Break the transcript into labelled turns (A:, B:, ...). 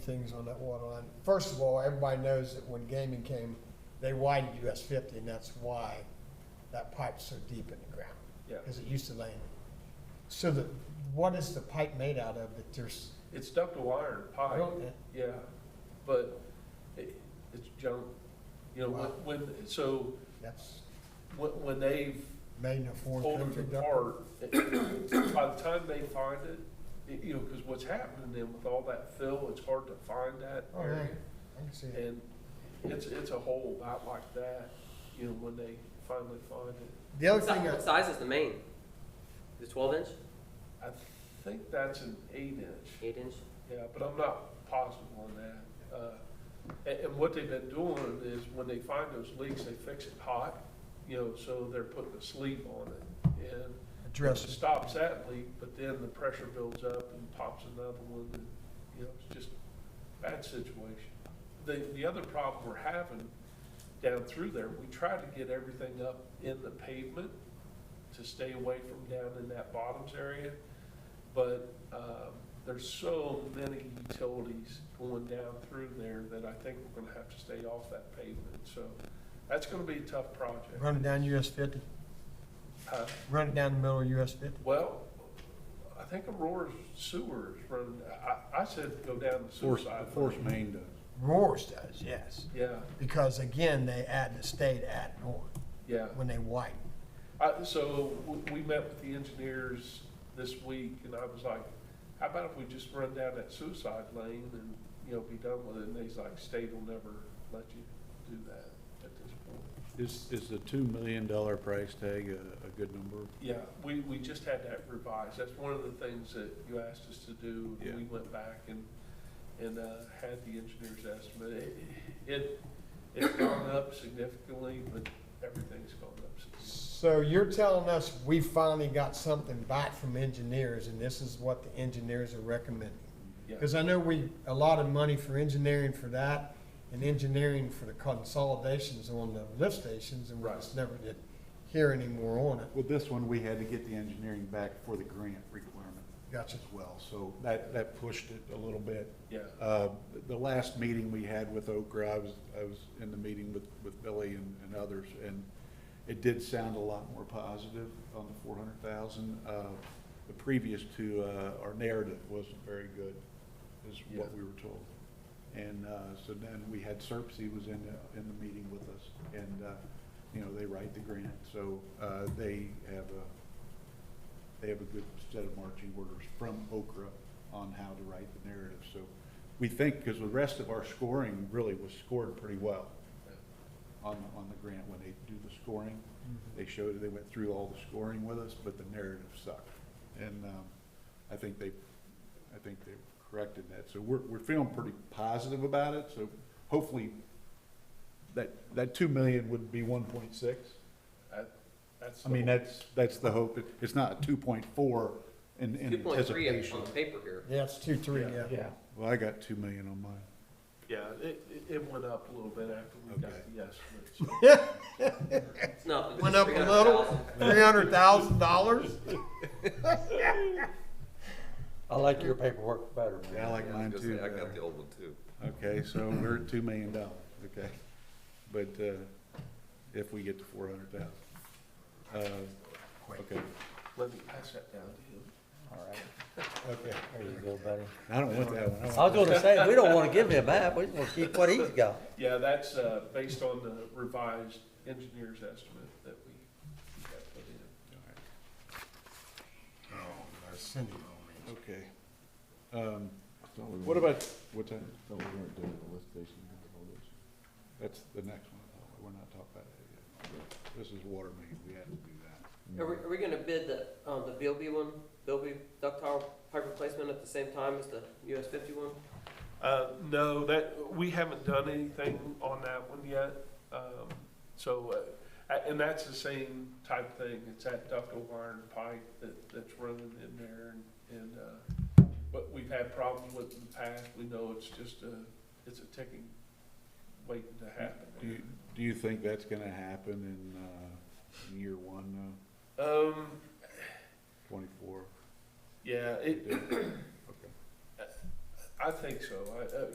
A: things on that water line. First of all, everybody knows that when gaming came, they widened US fifty, and that's why that pipe's so deep in the ground.
B: Yeah.
A: Because it used to lay. in. So the, what is the pipe made out of that there's?
B: It's ductile iron
A: I
B: pipe,
A: don't-
B: yeah, but it, it's junk. You know, when, when- so
A: That's
B: when, when they've
A: made in a foreign
B: pulled
A: country.
B: it
A: duct-
B: apart, it- by the time they find it, it- you know, because what's happening then with all that fill, it's hard to find that
A: Oh, yeah,
B: area.
A: I can see it.
B: And it's, it's a hole about like that, you know, when they finally find it.
A: The other
C: What si-
A: thing,
C: what
A: that-
C: size is the main? The twelve inch,
B: I think that's an eight inch.
C: eight inch?
B: Yeah, but I'm not positive on that. Uh, And, and what they've been doing is when they find those leaks, they fix it hot, you know, so they're putting a sleeve on it. And it
A: address, it.
B: stops that leak, but then the pressure builds up and pops another one. and, You know, it's just a bad situation. The, the other problem we're having down through there, we try to get everything up in the pavement to stay away from down in that bottoms area. But um, there's so many utilities going down through there that I think we're gonna have to stay off that pavement. So that's gonna be a tough project.
A: run it down US fifty,
B: Uh,
A: run it down the middle of US fifty.
B: well, I think Aurora's sewer is running, I, I said go down the sewer
D: Force,
B: side.
D: force main does.
A: Roars does, yes,
B: Yeah,
A: because again, they add, the state added on
B: yeah.
A: when they widen.
B: I, so w- we met with the engineers this week and I was like, how about if we just run down that suicide lane and, you know, be done with it? And he's like, state will never let you do that at this point.
D: Is, is the two million dollar price tag a, a good number?
B: Yeah, we, we just had that revised. That's one of the things that you asked us to do.
D: Yeah.
B: We went back and, and, uh, had the engineer's estimate. It- It, it's gone up significantly, but everything's gone up significantly.
A: So you're telling us we finally got something back from engineers and this is what the engineers are recommending? Because
B: Yeah,
A: I know we allotted money for engineering for that and engineering for the consolidations on the lift stations and we
B: Right.
A: just never did hear any more on it.
D: Well, this one, we had to get the engineering back for the grant requirement
A: Gotcha.
D: as well, so that, that pushed it a little bit.
B: yeah,
D: Uh, The last meeting we had with Okra, I was, I was in the meeting with, with Billy and, and others, and it did sound a lot more positive on the four hundred thousand. Uh, The previous to, uh, our narrative wasn't very good, is what
B: Yeah.
D: we were told. And uh, so then we had Serpsey was in, the- in the meeting with us, and, uh, you know, they write the grant, so uh, they have a, they have a good set of marching orders from Okra on how to write the narrative. So we think, because the rest of our scoring really was scored pretty well on, on the grant. When they do the scoring, they
B: Mm-hmm.
D: showed, they went through all the scoring with us, but the narrative sucked. And um, I think they, I think they corrected that. So we're, we're feeling pretty positive about it, so hopefully that, that two million would be one point six.
B: that, that's.
D: I mean,
B: the-
D: that's, that's the hope. It- It's not two point four in, in
C: Two point three
D: anticipation.
C: on the paper here.
A: Yeah, it's two, three, yeah.
D: Yeah, well, I got two million on mine.
B: Yeah, it, it- it went up a little bit after we got
D: Okay.
B: the estimate. so.
C: It's nothing.
A: Went up a little, three hundred thousand dollars?
E: I like your paperwork better,
D: Yeah, I
E: man.
D: like mine
F: Just
D: too.
F: say, I got
D: better.
F: the old one too.
D: Okay, so we're at two million dollars, okay? But, uh, if we get to four hundred thousand. Uh, okay,
B: Let me pass that down to him.
E: All right,
D: okay.
E: there you go, buddy.
D: I don't want that one. I want-
E: I was gonna say, we don't wanna give him that, we just wanna keep what he's got.
B: Yeah, that's, uh, based on the revised engineer's estimate that we we got put in.
D: Okay. Um, what about, what time?
F: Thought we weren't doing the lift station consolidation.
D: That's the next one. We're not talking about that yet. This is water main. We had to do that.
C: Are we, are we gonna bid the, um, the VLB one, VLB ductile pipe replacement at the same time as the US fifty one?
B: Uh, no, that, we haven't done anything on that one yet. Um, so, uh, a- and that's the same type thing. It's that ductile iron pipe that, that's running in there and, and, uh, but we've had problems with it in the past. We know it's just a, it's a ticking waiting to
D: Do you,
B: happen.
D: do you think that's gonna happen in, uh, in year one,
B: Um,
D: uh, twenty-four?
B: yeah, it,
D: Okay.
B: I think so. I, uh,